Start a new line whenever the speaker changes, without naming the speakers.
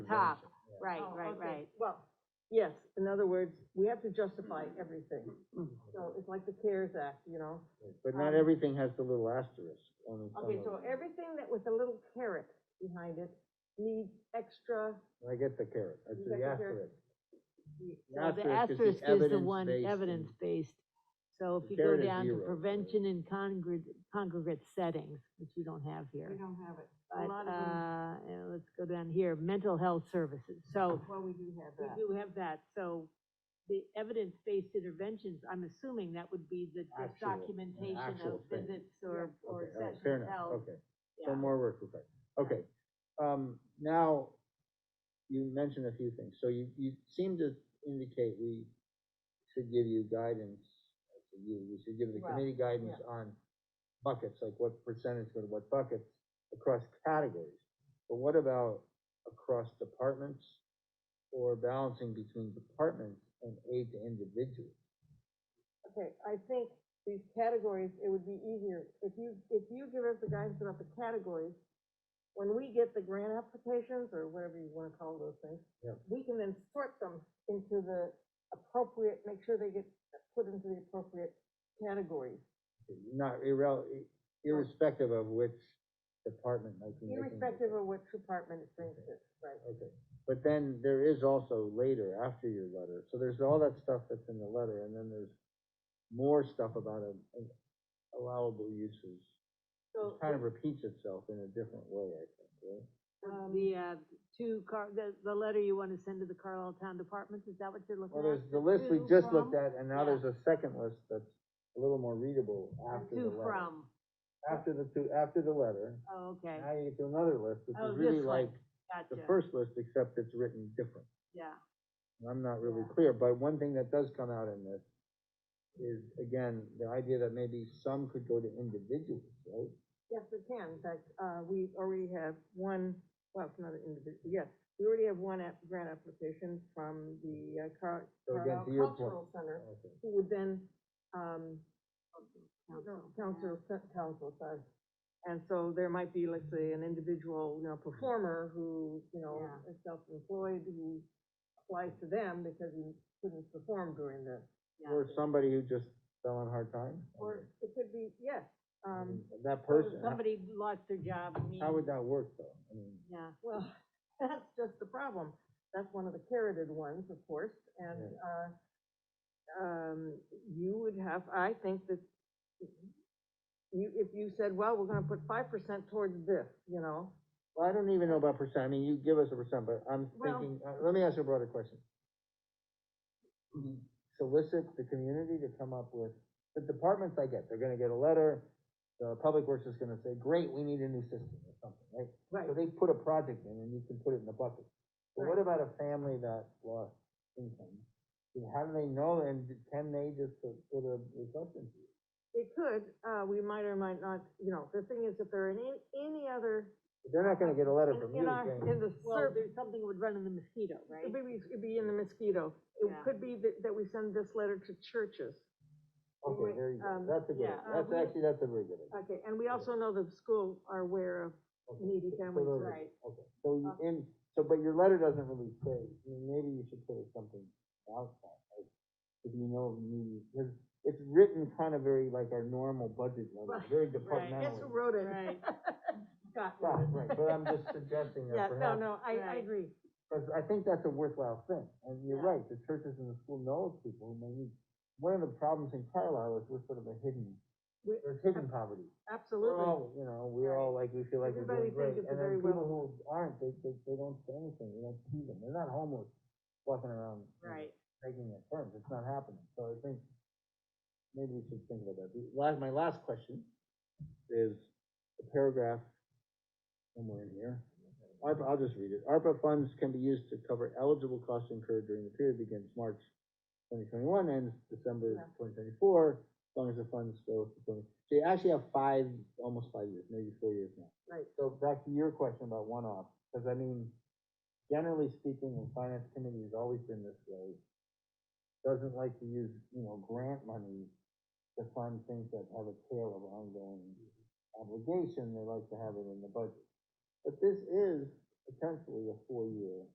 top, right,
Oh,
right,
okay.
right.
Well, yes, in other words, we have to justify everything. So it's like the CARES Act, you know?
Mm-hmm. But not
Um,
everything has the little asterisk on some
Okay,
of
so
it.
everything that with a little carrot behind it needs extra,
I get the carrot, I see
got
the
the carrot?
asterisk.
So the
Asterisk is
asterisk
the
is the one,
evidence-based and-
evidence-based. So
The
if you go
carrot is
down to
zero.
prevention and congregate, congregate settings, which we don't have
we
here.
don't have it. A
But,
lot of them,
uh, and let's go down here, mental health services. So
well, we do have
we
that.
do have that, so the evidence-based interventions, I'm assuming that would be the just
Actual- an
documentation of
actual thing.
visits or, or
Okay, all right, fair
sessions
enough,
held.
okay.
Yeah.
Some more work required. Okay, um, now, you mentioned a few things, so you, you seem to indicate we should give you guidance, I say you, we should give the
Well,
committee guidance on buckets, like what percentage go to what buckets across categories. But what about across departments or balancing between departments and aid to individuals?
Okay, I think these categories, it would be easier, if you, if you give us the guidance about the categories, when we get the grant applications, or whatever you wanna call those things,
Yeah.
we can then sort them into the appropriate, make sure they get put into the appropriate categories.
Not irrel, irrespective of which department might be making. the-
Irrespective of which department it brings it, right?
Okay, but then there is also later, after your letter, so there's all that stuff that's in the letter, and then there's more stuff about um, um, allowable uses.
So,
It kind of repeats itself in a different way, I think, right?
um,
The, uh, two car, the, the letter you wanna send to the Carlisle Town Departments, is that what you're looking at?
Well, there's the list we
to,
just
from,
looked at, and now
yeah.
there's a second list that's a little more readable
or
after the
Two
letter.
from,
After the two, after the letter,
oh, okay,
now you get to another list, which
Oh,
is really
this one.
like the
gotcha,
first list, except it's written different.
yeah,
and I'm not really
Yeah.
clear, but one thing that does come out in this is, again, the idea that maybe some could go to individuals, right?
yes, we can, in fact, uh, we already have one, well, it's not an individual, yes, we already have one app, grant application from the uh, Car-
So again,
Carlisle
to your point.
Cultural Center,
Okay.
who would then, um,
council.
council, council, sorry. And so there might be, let's say, an individual, you know, performer who, you know,
Yeah.
is self-employed, who applies to them because he couldn't perform during the,
Yeah.
Or somebody who just fell on hard times.
or it could be, yes,
I
um,
mean, That
Or
person, how,
Somebody
Mm-hmm.
lost their job, I mean,
how would that work though? I mean,
yeah,
Well, that's just the problem. That's one of the carroted ones, of course, and, uh, um, you would have, I think that you, if you said, well, we're gonna put five percent towards this, you know,
well, I don't even know about percent, I mean, you give us a percent, but I'm
Well-
thinking, uh, let me ask you a broader question. Solicit the community to come up with, the departments I get, they're gonna get a letter, the public works is gonna say, great, we need a new system or something, right?
right,
So they put a project in and you can put it in the bucket. But what about a family that lost income? And How do they know and can they just put put a reception?
it could, uh, we might or might not, you know, the thing is, if there are any, any other,
They're not gonna get a letter
in
from
in
you
our, in
saying,
the
well,
survey,
there's something would run in the mosquito, right?
it'd be, it'd be in the mosquito. It
Yeah.
could be that, that we send this letter to churches.
okay, there you go,
um,
that's a good,
yeah, uh,
that's
we-
actually, that's a very good idea.
Okay, and we also know that schools are aware of
Okay,
uh,
so
needy Uh-huh. families,
those are-
right.
Okay, so you, and, so, but your letter doesn't really say, I mean, maybe you should put something outside, like, if you know, maybe, because it's written kind of very like our normal budget letter,
Right,
very
I guess
departmental.
who wrote it?
Right.
Got
Right,
rid of it.
right, but I'm just suggesting
Yeah,
that
no,
perhaps,
no, I, I
Right.
agree.
because I think that's a worthwhile thing, and you're
Yeah.
right, the churches and the school knows people, and they need, one of the problems in Carlisle is we're sort of a hidden,
We-
there's hidden poverty. We're
Absolutely.
all, you know, we all like, we feel like we're
Everybody
doing great,
thinks it's
and then
very
people
well-
who aren't, they, they, they don't say anything, you don't see them, they're not homeless, walking around. you know,
Right,
Begging their friends, it's not happening, so I think, maybe we should think about that. The Last, my last question is a paragraph somewhere in here. ARPA, I'll just read it. ARPA funds can be used to cover eligible costs incurred during the period begins March twenty twenty-one, ends December
Yeah.
twenty twenty-four, as long as the funds go to twenty. So you actually have five, almost five years, maybe four years now.
Right.
So back to your question about one-off, because I mean, generally speaking, and finance committee has always been this way, doesn't like to use, you know, grant money to fund things that have a tail of ongoing obligation, they like to have it in the budget. But this is potentially a four-year